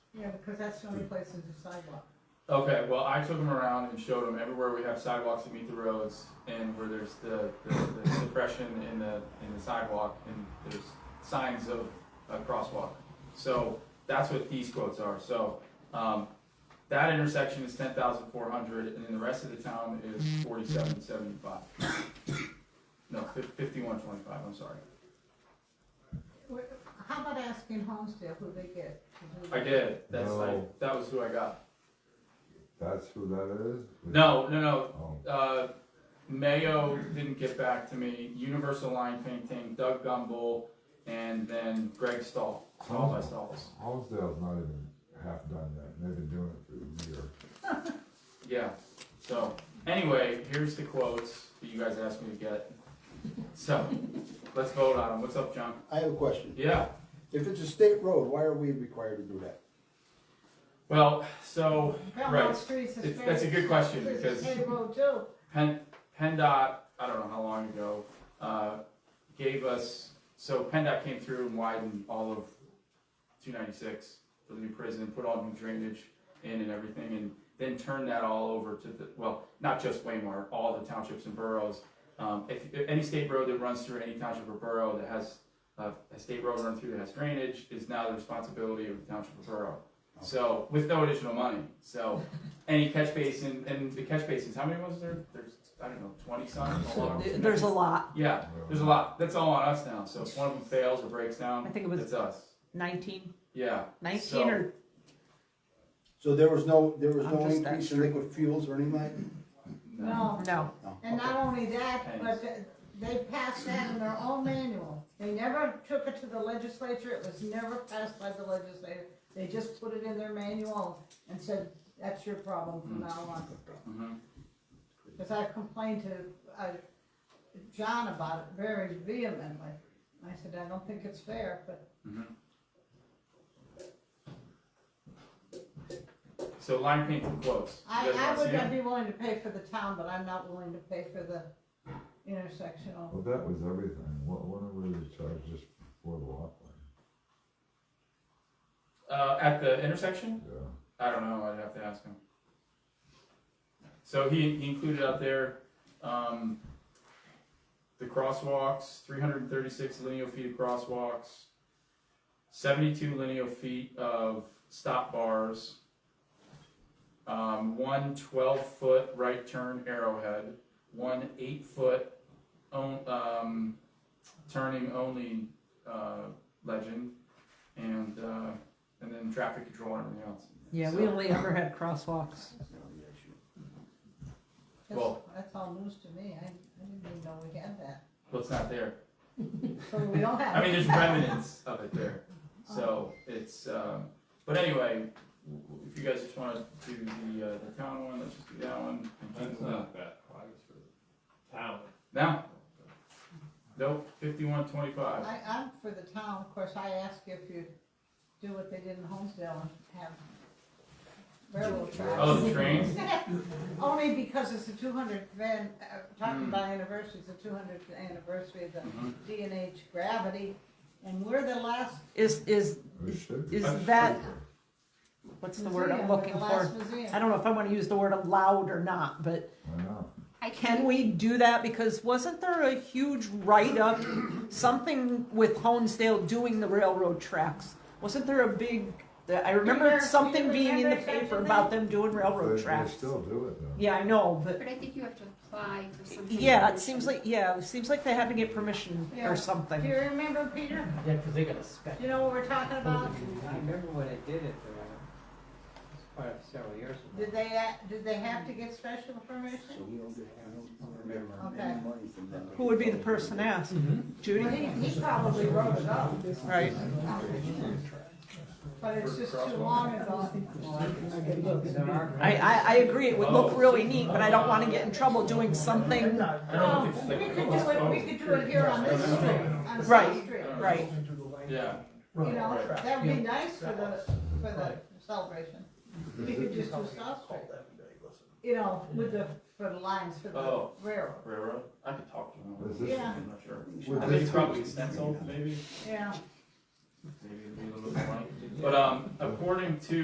Yeah, because that's the only place is a sidewalk. Okay, well, I took them around and showed them everywhere we have sidewalks that meet the roads and where there's the, the, the depression in the, in the sidewalk and there's signs of a crosswalk. So that's what these quotes are. So, um, that intersection is ten thousand four hundred and then the rest of the town is forty-seven seventy-five. No, fifty-one twenty-five, I'm sorry. Wh- How about asking Homestead who they get? to do I that? did, that's No. like, that was who I got. That's who that is? No, no, no, Oh, Uh, Mayo didn't get back to me. Universal Line Painting, Doug Gumbel, and then Greg Stahl, Stahl by Stahls. Homestead's not even half done yet, and they've been doing it for a year. Yeah. So anyway, here's the quotes that you guys asked me to get. So let's vote on them. What's up, John? I have a question. Yeah. If it's a state road, why are we required to do that? Well, so Belmont Right. Street's a It's- state. that's a good question, it's a because- state road too. Pen, PennDOT, I don't know how long ago, uh, gave us, so PennDOT came through and widened all of two ninety-six for the new prison, put all new drainage in and everything, and then turned that all over to the, well, not just Waymart, all the townships and boroughs. Um, if, if any state road that runs through any township or borough that has, uh, a state road run through that has drainage is now the responsibility of the township or borough. So, with no additional money, so, any catch basin, and the catch basins, how many was there? There's, I don't know, twenty some? along- There's a lot. Yeah, there's a lot, that's all on us now, so if one of them fails or breaks I down, think it was it's us, 19, yeah. 19 So- or So there was no, there was I'm no just increase in liquid fuels or anything like? No, no. No, and okay. not only that, but th- they passed that in their own manual. They never took it to the legislature, it was never passed by the legislature. They just put it in their manual and said, that's your problem Hmm. from now on. Mhm. Because I complained to, uh, John about it very vehemently. I said, I don't think it's fair, but Mm-hmm. So line painting quotes, I, you guys I wanna would see 'em? not be willing to pay for the town, but I'm not willing to pay for the intersectional. Well, that was everything. What, what were they charged just for the lot line? Uh, at the intersection? Yeah. I don't know, I'd have to ask him. So he, he included out there, um, the crosswalks, three hundred and thirty-six linear feet of crosswalks, seventy-two linear feet of stop bars, um, one twelve-foot right turn arrowhead, one eight-foot own, um, turning only, uh, legend, and, uh, and then traffic control and everything else. Yeah, we only ever had crosswalks. That's, Well- that's all news to me, I, I didn't even know we had that, Well, it's not there. so we don't have. I mean, it. there's remnants of it there. So it's, um, but anyway, w- w- if you guys just wanna do the, uh, the town one, let's just do that one. and keep That's it up. not bad price for the town. No. Nope, fifty-one twenty-five. I, I'm for the town, of course, I ask if you do what they did in Holmesdale and have railroad Oh, tracks. the trains? Only because it's the two hundredth van, uh, talking Hmm. about anniversary, it's the two hundredth anniversary of Mhm. the D and H gravity, and we're the last Is, is, It should be. is I'm that, cheaper. what's the museum, word I'm we're the looking last for? museum. I don't know if I want to use the word allowed or not, but Why not? can we do that? Because wasn't there a huge write-up, something with Honesdale doing the railroad tracks? Wasn't there a big, I remember Remember- something you being in the remember such a paper thing? about them doing They, railroad they tracks? still do it though. Yeah, I know, but But I think you have to apply for something. Yeah, it seems like yeah, it seems like they had to get permission Yeah. or something. Do you remember, Peter? Yeah, because they got a spec. You know what we're talking about? I remember when I did it, but uh, it's quite a- several years ago. Did they, uh, did they have to get special permission? So we don't get, I don't remember Okay. any money from them. Who would be the person asked? Well, Judy, He, he probably wrote it up, right? but it's just too long ago. I, I I agree. It would look really neat, but I don't want to get in trouble doing something. I don't think it's Um, We like. could do it, we could do it here on this street, on South Right. Street. Right. Yeah, You know, that would be nice for the, for the celebration. We could just do South Street. You know, with the, for the lines for Oh. the railroad, railroad. I could talk to Is him. this- Yeah. I'm not sure. Would I think this it's be- probably stenciled, maybe, yeah. maybe it'd be a little bit funny. But, um, according to